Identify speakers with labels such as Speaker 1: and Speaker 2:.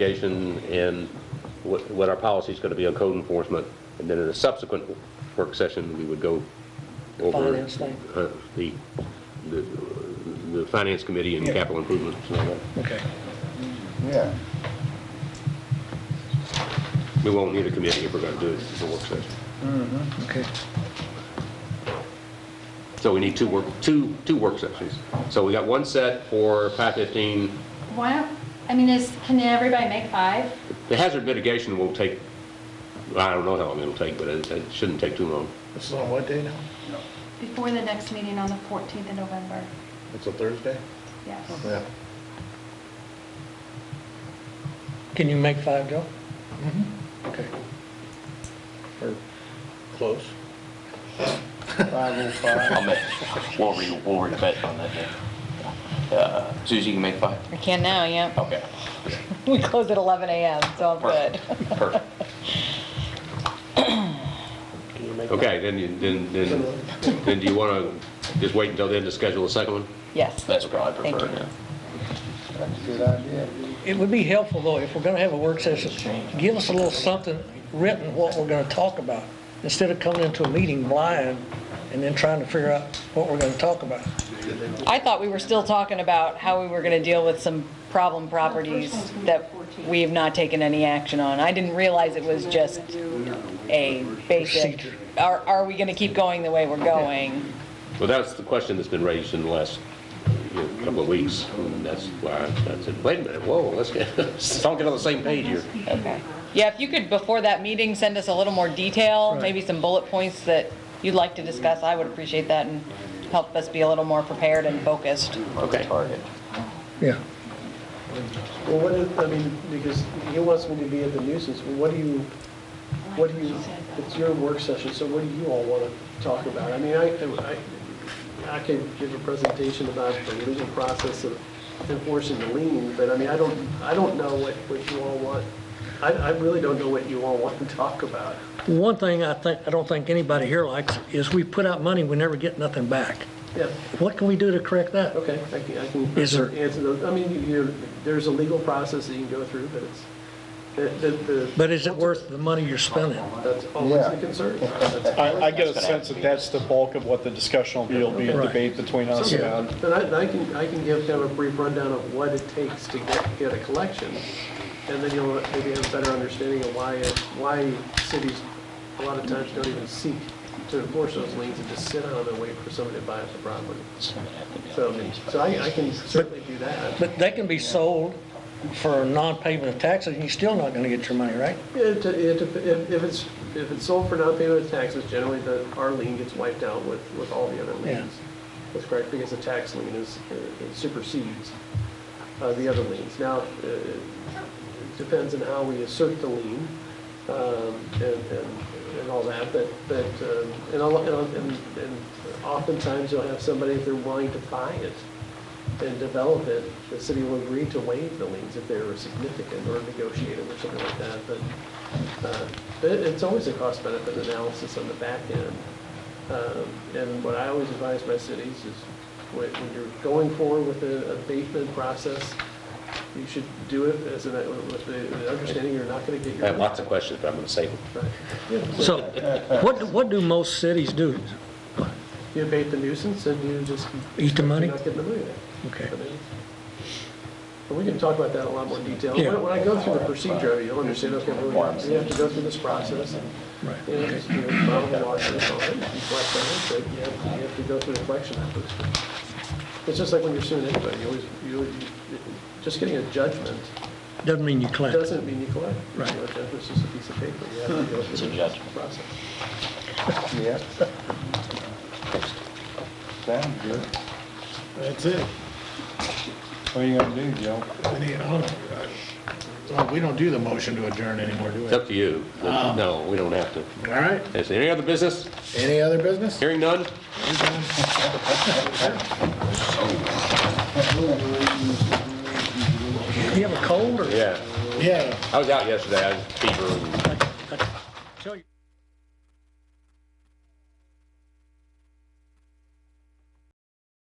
Speaker 1: mitigation and what, what our policy is going to be on code enforcement. And then in a subsequent work session, we would go over
Speaker 2: Finance thing.
Speaker 1: uh, the, the, the finance committee and capital improvements and all that.
Speaker 2: Okay.
Speaker 3: Yeah.
Speaker 1: We won't need a committee if we're going to do it for work session.
Speaker 2: Okay.
Speaker 1: So we need two work, two, two work sessions. So we got one set for 515.
Speaker 4: Why don't, I mean, is, can everybody make five?
Speaker 1: The hazard mitigation will take, I don't know how long it'll take, but it, it shouldn't take too long.
Speaker 3: It's on what day now?
Speaker 4: Before the next meeting on the 14th of November,
Speaker 3: It's a Thursday?
Speaker 4: yes.
Speaker 3: Yeah.
Speaker 2: Can you make five, Joe? Okay.
Speaker 3: Or close.
Speaker 5: I'll make, we'll re, we'll rebid on that day. Uh, Suzie, you can make five?
Speaker 6: We can now, yeah.
Speaker 5: Okay,
Speaker 6: We close at 11 a.m., so I'm good.
Speaker 5: perfect.
Speaker 1: Okay, then, you- then, then, then do you want to just wait until then to schedule a second one?
Speaker 6: Yes.
Speaker 5: That's what I prefer,
Speaker 6: Thank you.
Speaker 5: yeah.
Speaker 2: It would be helpful, though, if we're going to have a work session, give us a little something written, what we're going to talk about, instead of coming into a meeting blind and then trying to figure out what we're going to talk about.
Speaker 6: I thought we were still talking about how we were going to deal with some problem properties that we have not taken any action on. I didn't realize it was just a basic,
Speaker 2: Procedure.
Speaker 6: are, are we going to keep going the way we're going?
Speaker 1: Well, that's the question that's been raised in the last you know, couple of weeks, and that's why I said, wait a minute, whoa, let's get, let's all get on the same page here.
Speaker 6: Okay. Yeah, if you could, before that meeting, send us a little more detail, maybe some bullet points that you'd like to discuss, I would appreciate that and help us be a little more prepared and focused.
Speaker 5: Okay. Target.
Speaker 2: Yeah.
Speaker 7: Well, what is, I mean, because he wants me to be at the nuisance, well, what do you, what do you, it's your work session, so what do you all want to talk about? I mean, I, I, I can give a presentation about the legal process of enforcing the lien, but I mean, I don't, I don't know what, what you all want. I, I really don't know what you all want to talk about.
Speaker 2: One thing I think, I don't think anybody here likes is we put out money, we never get nothing back.
Speaker 7: Yeah,
Speaker 2: What can we do to correct that?
Speaker 7: okay, I can, I can
Speaker 2: Is there-
Speaker 7: answer those. I mean, you, there's a legal process that you can go through, but it's, the, the- the,
Speaker 2: But is it worth the money you're spending?
Speaker 7: that's always a concern. That's
Speaker 8: I, I get a sense that that's the bulk of what the discussion will be, will be a
Speaker 2: Right.
Speaker 8: debate between us
Speaker 7: Yeah,
Speaker 8: about.
Speaker 7: But I, I can, I can give them a brief rundown of what it takes to get, get a collection, and then you'll maybe have a better understanding of why, it- why cities, a lot of times don't even seek to enforce those liens and just sit on them and wait for somebody to buy up the property. So, so I, I can certainly do that.
Speaker 2: But they can be sold for non-payment of taxes, and you're still not going to get your money, right?
Speaker 7: It, it, if if it's, if it's sold for non-payment of taxes, generally the, our lien gets wiped out with, with all the other liens. That's correct, because the tax lien is, it supersedes uh, the other liens. Now, uh, it depends on how we assert the lien um, and, and, and all that, but, but, um, and a lot- and- and and oftentimes you'll have somebody, if they're willing to buy it and develop it, the city will agree to waive the liens if they were significant or negotiated or something like that, but uh, But it- it's always a cost-benefit analysis on the back end. Um, And what I always advise my cities is when when you're going forward with the abatement process, you should do it as an, with the the understanding you're not going to get
Speaker 1: I
Speaker 7: your.
Speaker 1: have lots of questions, but I'm going to save them.
Speaker 7: Right. Yeah,
Speaker 2: So what, what do most cities do?
Speaker 7: You abate the nuisance and you just.
Speaker 2: Eat the money?
Speaker 7: You're not getting the money back.
Speaker 2: Okay.
Speaker 7: I mean, But we can talk about that in a lot more detail.
Speaker 2: Yeah.
Speaker 7: When when I go through the procedure, you'll understand, okay, we're gonna- we have to go through this process.
Speaker 2: Right.
Speaker 7: You know, just, you know, file the lawsuit on it, you collect on it, but you have, you have to go through the collection efforts. It's just like when you're suing anybody, you always, you, always- just getting a judgment
Speaker 2: Doesn't mean you collect.
Speaker 7: doesn't mean you collect.
Speaker 2: Right.
Speaker 7: You know, A judgment's just a piece of paper, you have to go
Speaker 5: It's a
Speaker 7: through the
Speaker 5: judgment.
Speaker 7: process.
Speaker 3: Yeah. Sounds good.
Speaker 8: That's it. What are you gonna do, Joe?
Speaker 9: Well, we don't do the motion to adjourn anymore, do
Speaker 1: It's up to you. No, we don't have to.
Speaker 9: we? All right,
Speaker 1: Is there any other business?
Speaker 9: any other business?
Speaker 1: Hearing none?
Speaker 2: You have a cold or?
Speaker 1: Yeah.
Speaker 9: Yeah.
Speaker 1: I was out yesterday, I had fever and
Speaker 2: I- I tell you-